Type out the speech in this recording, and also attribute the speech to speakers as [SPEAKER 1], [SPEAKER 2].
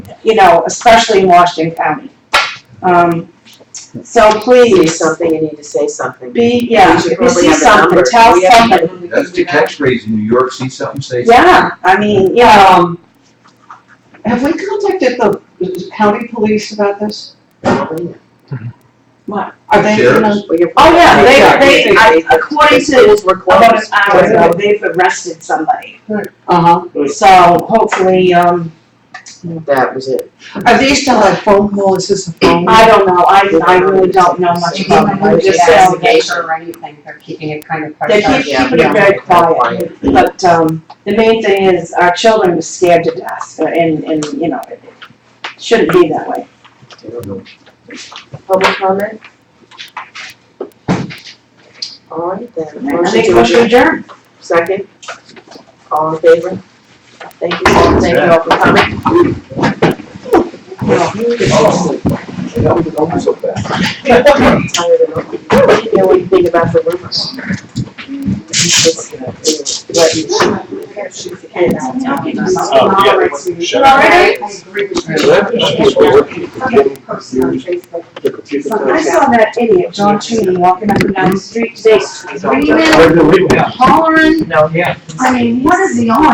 [SPEAKER 1] you know, especially in Washington County. Um, so
[SPEAKER 2] See
[SPEAKER 1] please,
[SPEAKER 2] something, you need to say something.
[SPEAKER 1] be, yeah,
[SPEAKER 2] We should
[SPEAKER 1] if you
[SPEAKER 2] probably
[SPEAKER 1] see
[SPEAKER 2] have a
[SPEAKER 1] something,
[SPEAKER 2] number.
[SPEAKER 1] tell
[SPEAKER 2] We have to-
[SPEAKER 1] somebody.
[SPEAKER 2] we
[SPEAKER 3] That's
[SPEAKER 2] can
[SPEAKER 3] the
[SPEAKER 2] do that.
[SPEAKER 3] catchphrase in New York, see something, say something.
[SPEAKER 1] Yeah, I mean, yeah,
[SPEAKER 4] Um, have we contacted the county police about this? Are they gonna?
[SPEAKER 2] Well, you're-
[SPEAKER 1] oh yeah,
[SPEAKER 4] Yeah.
[SPEAKER 1] they, they, I- according to
[SPEAKER 2] Schools were
[SPEAKER 1] about an
[SPEAKER 2] closed.
[SPEAKER 1] hour ago, they've arrested somebody.
[SPEAKER 4] Uh-huh.
[SPEAKER 1] So hopefully, um,
[SPEAKER 2] That was it.
[SPEAKER 4] Are these still like phone calls? Is this a phone?
[SPEAKER 1] I don't know, I, I really don't know much
[SPEAKER 5] They
[SPEAKER 1] about them,
[SPEAKER 5] didn't
[SPEAKER 2] Well,
[SPEAKER 1] I'm
[SPEAKER 5] move
[SPEAKER 1] just
[SPEAKER 2] it's
[SPEAKER 5] the
[SPEAKER 1] saying,
[SPEAKER 2] investigation.
[SPEAKER 5] or anything, they're keeping it kind of
[SPEAKER 1] they
[SPEAKER 5] hush
[SPEAKER 1] keep
[SPEAKER 2] Yeah.
[SPEAKER 5] hush.
[SPEAKER 1] keeping it very quiet. But, um, the main thing is our children are scared to death uh, and, and, you know, it it shouldn't be that way.
[SPEAKER 2] Public comment? All right then.
[SPEAKER 1] I
[SPEAKER 2] Motion
[SPEAKER 1] think
[SPEAKER 2] to
[SPEAKER 1] we should
[SPEAKER 2] adjourn.
[SPEAKER 1] adjourn.
[SPEAKER 2] Second. All in favor? Thank you all, thank you all for coming.
[SPEAKER 3] That was going so fast.
[SPEAKER 2] I'm tired of it. You know what you think about the rumors? It's, uh, what you-
[SPEAKER 6] Oh, yeah. Shut up.
[SPEAKER 5] I
[SPEAKER 3] The computer
[SPEAKER 1] I saw that idiot, John Cheney, walking up and down the street today, screaming,
[SPEAKER 3] does.
[SPEAKER 1] hollering,
[SPEAKER 2] No,
[SPEAKER 1] I mean, what is he on?